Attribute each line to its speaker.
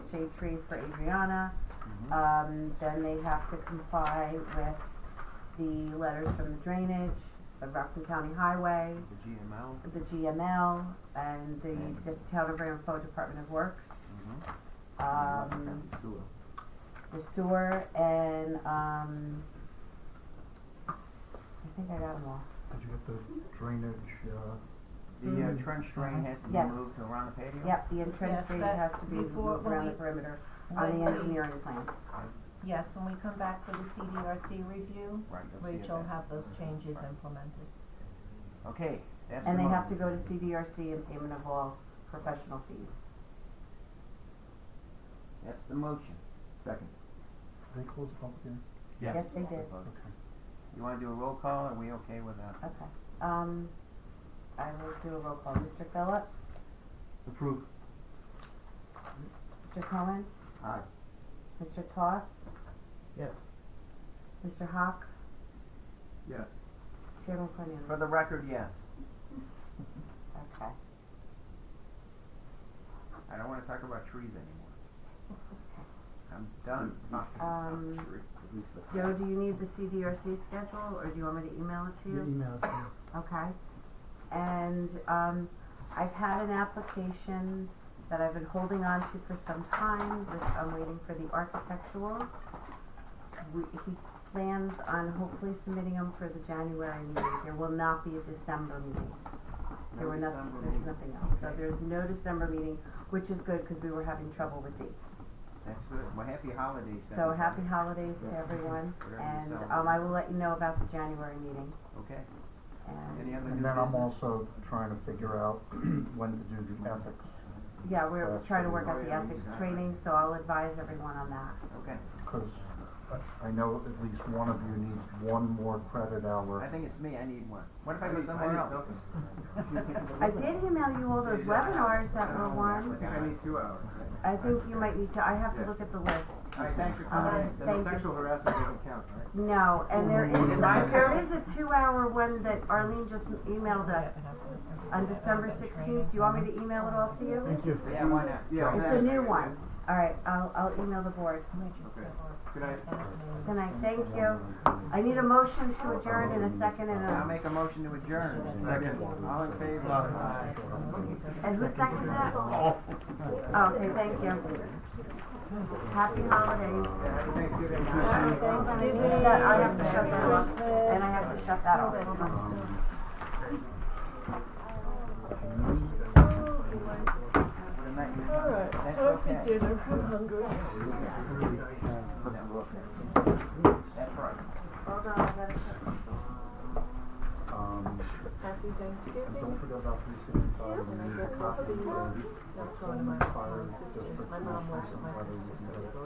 Speaker 1: shade tree for Adriana.
Speaker 2: Mm-hmm.
Speaker 1: Um, then they have to comply with the letters from the drainage, the Rockland County Highway,
Speaker 2: The GML.
Speaker 1: the GML, and the Town of Ramapo Department of Works,
Speaker 2: Mm-hmm.
Speaker 1: um, the sewer, and, um, I think I got them all.
Speaker 3: Did you get the drainage, uh,
Speaker 2: The uh,
Speaker 3: Mm.
Speaker 2: trench drain has to
Speaker 1: mm-hmm.
Speaker 2: be
Speaker 1: Yes.
Speaker 2: moved around the patio?
Speaker 1: Yep, the entrance
Speaker 4: Yes,
Speaker 1: gate
Speaker 4: that-
Speaker 1: has to be
Speaker 4: before-
Speaker 1: moved
Speaker 4: when
Speaker 1: around the
Speaker 4: we-
Speaker 1: perimeter on the
Speaker 4: when we-
Speaker 1: engineering plans.
Speaker 4: Yes, when we come back for the CDRC review,
Speaker 2: Right, you'll see it
Speaker 4: Rachel
Speaker 2: there.
Speaker 4: have those changes implemented.
Speaker 2: Okay, that's the
Speaker 1: And they
Speaker 2: mo-
Speaker 1: have to go to CDRC and payment of all professional fees.
Speaker 2: That's the motion. Second.
Speaker 3: did they close the public hearing?
Speaker 1: Yes, they did.
Speaker 3: Okay.
Speaker 2: You wanna do a roll call, are we okay with that?
Speaker 1: Okay, um, I will do a roll call. Mr. Phillip,
Speaker 2: Approved.
Speaker 1: Mr. Cohen,
Speaker 2: Aye.
Speaker 1: Mr. Toss,
Speaker 2: Yes.
Speaker 1: Mr. Hawk,
Speaker 2: Yes.
Speaker 1: Chairman
Speaker 2: For
Speaker 1: Cornelius.
Speaker 2: the record, yes.
Speaker 1: Okay,
Speaker 2: I don't wanna talk about trees anymore. I'm done talking
Speaker 1: Um,
Speaker 2: about trees.
Speaker 1: Joe, do you need the CDRC schedule, or do you want me to email it to
Speaker 3: Your
Speaker 1: you?
Speaker 3: email, yeah.
Speaker 1: Okay, and, um, I've had an application that I've been holding on to for some time, which I'm waiting for the architecturals. We, he plans on hopefully submitting them for the January meeting. There will not be a December meeting. There were nothing,
Speaker 2: December
Speaker 1: there's
Speaker 2: meeting.
Speaker 1: nothing else, so
Speaker 2: Okay.
Speaker 1: there's no December meeting, which is good, cause we were having trouble with dates.
Speaker 2: That's good, well, happy holidays.
Speaker 1: So
Speaker 2: everybody.
Speaker 1: happy holidays to
Speaker 2: Yeah.
Speaker 1: everyone,
Speaker 2: Whatever you
Speaker 1: and,
Speaker 2: celebrate.
Speaker 1: um, I will let you know about the January meeting,
Speaker 2: Okay, any
Speaker 1: and,
Speaker 2: other new
Speaker 3: And then I'm
Speaker 2: business?
Speaker 3: also trying to figure out when to do the ethics.
Speaker 1: yeah, we're
Speaker 3: That's
Speaker 1: trying to work
Speaker 3: pretty
Speaker 1: out
Speaker 2: much
Speaker 1: the
Speaker 2: it.
Speaker 1: ethics training, so I'll advise everyone on that.
Speaker 2: Okay,
Speaker 3: Because I know at least one of you needs one more credit
Speaker 2: I
Speaker 3: hour.
Speaker 2: think it's me, I need one. What if I go somewhere else?
Speaker 1: I did email you all those webinars that were
Speaker 2: I
Speaker 1: won.
Speaker 2: think I need two hours.
Speaker 1: I think you might need to, I have to look at the list.
Speaker 2: All right, thanks for
Speaker 1: Um,
Speaker 2: coming in.
Speaker 1: thank you.
Speaker 2: harassment doesn't count, right?
Speaker 1: No, and there is,
Speaker 2: Is mine
Speaker 1: there is a two-hour one that Arlene just emailed us Oh, on December sixteenth. Do you want me to email it all to you?
Speaker 3: Thank you.
Speaker 2: Yeah, why not?
Speaker 5: Yeah.
Speaker 1: It's a new one. All right, I'll, I'll email the board.
Speaker 5: Good night.
Speaker 1: Can I thank you? I need a motion to adjourn in a second and
Speaker 2: I'll
Speaker 1: a,
Speaker 2: make a motion to adjourn.
Speaker 5: Second.
Speaker 2: All in favor?
Speaker 5: Aye.
Speaker 1: and who seconded that? Oh, okay, thank you. Happy holidays.
Speaker 2: Happy Thanksgiving.
Speaker 1: That- I have to shut that off, and I have to shut that off.
Speaker 3: Um,
Speaker 2: Good night. That's okay.
Speaker 4: dinner, I'm hungry.
Speaker 2: That's right.
Speaker 1: Hold on, I gotta shut.
Speaker 3: Um,
Speaker 4: Happy
Speaker 3: and
Speaker 4: Thanksgiving.
Speaker 3: don't forget about three sixty-five and the
Speaker 4: That's one of my mom's sisters. My mom works with my sister, so